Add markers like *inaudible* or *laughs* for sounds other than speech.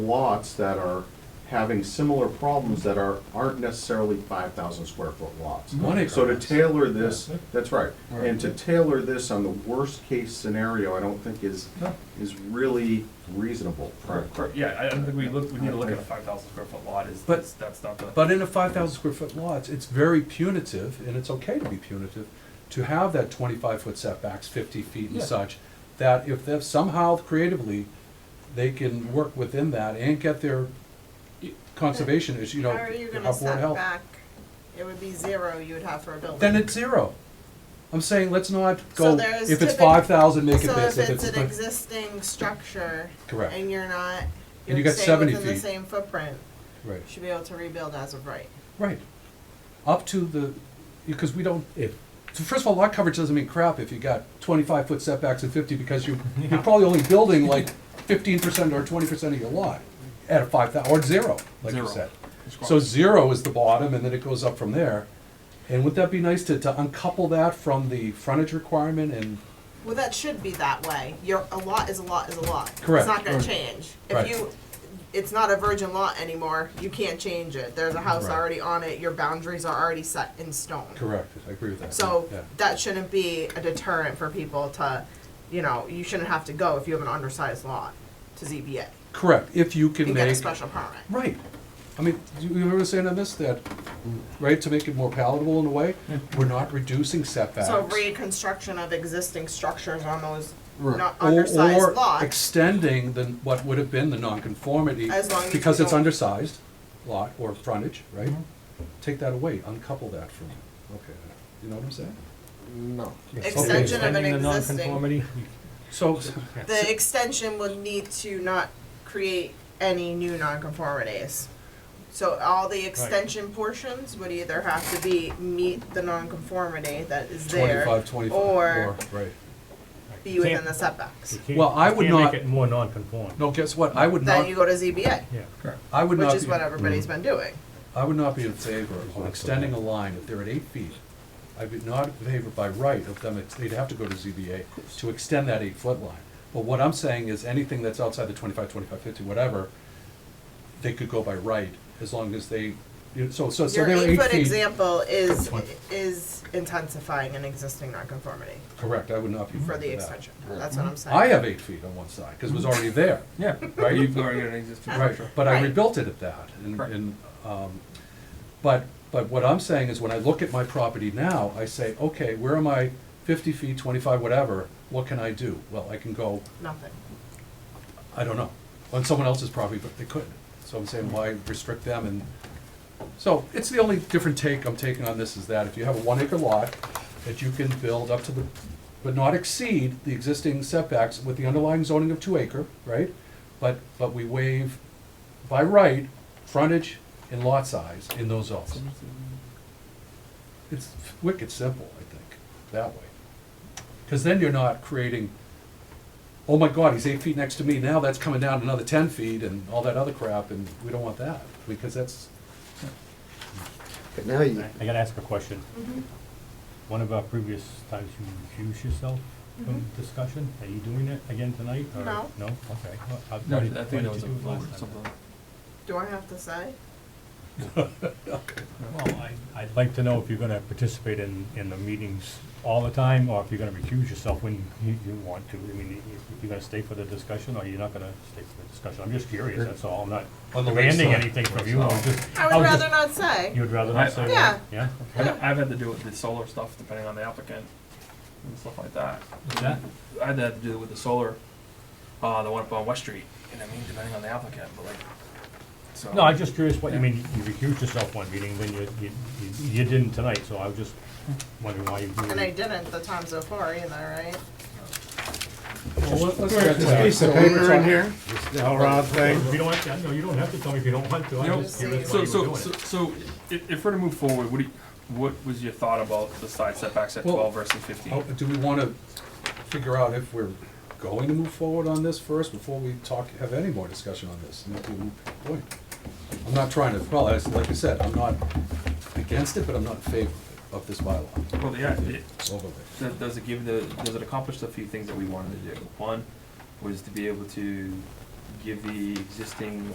lots that are having similar problems that are, aren't necessarily five thousand square foot lots. One acre So to lots. tailor this, that's right, Right. and to tailor this on the worst case scenario, I don't think is, No. is really reasonable. Correct, yeah, I I don't think we look, we need to look at a five thousand square foot lot, is, But- that's, that's not the. But in a five thousand square foot lot, it's- it's very punitive, and it's okay to be punitive, to have that twenty-five foot setbacks, fifty feet and Yeah. such, that if they somehow creatively, they can work within that and get their conservation issue, you know, How are you gonna upward set health. back? It would be zero you would have for a building. Then it's zero. I'm saying, let's not So go, there is if it's typic- five thousand, make it So this, if if it's it's. an not- existing structure. Correct. And you're not, And you you're got staying 70 within the feet. same footprint, Right, you should be able to rebuild as of right. right. Up to the, because we don't, If, So first of all, lot coverage doesn't mean crap if you got twenty-five foot setbacks and fifty, because you, you're probably only building like fifteen percent or twenty percent of your lot at a five thousand or zero, like you Zero. said. So zero is the bottom, and then it goes up from there. And wouldn't that be nice to, to uncouple that from the frontage requirement and, Well, that should be that way. Your, a lot is a lot is a lot. Correct. It's not gonna change. Right. If you, it's not a virgin lot anymore, you can't change it. There's a house Right. already on it, your boundaries are already set in stone. correct, I agree with that. So yeah. that shouldn't be a deterrent for people to, you know, you shouldn't have to go if you have an undersized lot to ZBA Correct, if you can and get a make, special permit. right. I mean, you you remember saying on this, that, right, to make it more palatable in a way, we're not reducing setbacks. So reconstruction of existing structures on those Right. not Or- undersized Or lots. extending the, what would have been the nonconformity, As long as because you it's don't- undersized lot or frontage, right? Take that away, uncouple that from, okay, you know what I'm saying? no. Extension of an existing, So, the extension would need to not create any new nonconformities. So all the extension portions would either have to be, meet the nonconformity that is there. twenty-five, twenty-five, or, or- right. be within the setbacks. Well, I would not- Can't make it more non-conform. No, guess what, I would Then you not, go to ZBA, Yeah. I would which not is what be, Mm. everybody's been doing. I would not be in favor of extending a line if they're at eight feet. I would not in favor by right of them, ex- they'd have to go to ZBA to extend that eight-foot line. But what I'm saying is anything that's outside the 25, 25, 50, whatever, they could go by right as long as they, you know, so, so, so Your they're eight eight-foot feet. example is, is intensifying an existing nonconformity Correct, I would not be in for the favor of that. extension, that's what I'm saying. Mm-hmm. I have eight feet on one side, because it was already there. *laughs* Yeah, Right. you've already got an existing Right, structure. but I Right. rebuilt it at that, and, Correct. and, um, but, but what I'm saying is, when I look at my property now, I say, okay, where am I fifty feet, twenty-five, whatever, what can I do? Well, I can go, Nothing. I don't know, on someone else's property, but they couldn't, so I'm saying, why restrict them, and, so, it's the only different take I'm taking on this is that if you have a one acre lot, that you can build up to the, but not exceed the existing setbacks with the underlying zoning of two acre, right? But, but we waive by right, frontage and lot size in those zones. It's wicked simple, I think, that way. Cause then you're not creating, oh my god, he's eight feet next to me, now that's coming down another ten feet and all that other crap, and we don't want that, because that's, But now you, I gotta ask a question. One of our previous times you recused yourself from discussion, are you doing it again tonight? or- Mm-hmm. No. No, okay. Well, I- No, I why did- why think that did was you a do it vote last or time? something. Do I have to say? Well, I, I'd like to know if you're gonna participate in, in the meetings all the time, or if you're gonna recuse yourself when you, you want to. I mean, if you're gonna stay for the discussion, or you're not gonna stay for the discussion. I'm just curious, that's all. I'm not On the demanding lakeside. anything from you. I'm just, I I would was rather just- not say. you would rather not say? Yeah. Yeah? I've, I've had to do with the solar stuff, depending on the applicant and stuff like that. That, I had to do with the solar, uh, the one up on West Street, and I mean, depending on the applicant, but like, so. No, I'm just curious what, you mean, you recused yourself one meeting, then you, you, you- you didn't tonight, so I was just wondering why you. And I didn't the time so far either, right? Well, let's There's get to that. a piece of So we're paper in talking- here, the whole round thing. You don't have to, no, you don't have to tell me if you don't want to, No, I'm just curious So, why you so, were so, doing it. so, if, if we're to move forward, what do you, what was your thought about the side setbacks at Well- twelve versus fifteen? Oh, Do we want to figure out if we're going to move forward on this first before we talk, have any more discussion on this? And if we- boy, I'm not trying to, well, as- like I said, I'm not against it, but I'm not in favor of this bylaw Well, yeah, it, overlay. Does, does it give the, does it accomplish the few things that we wanted to do? One was to be able to give the existing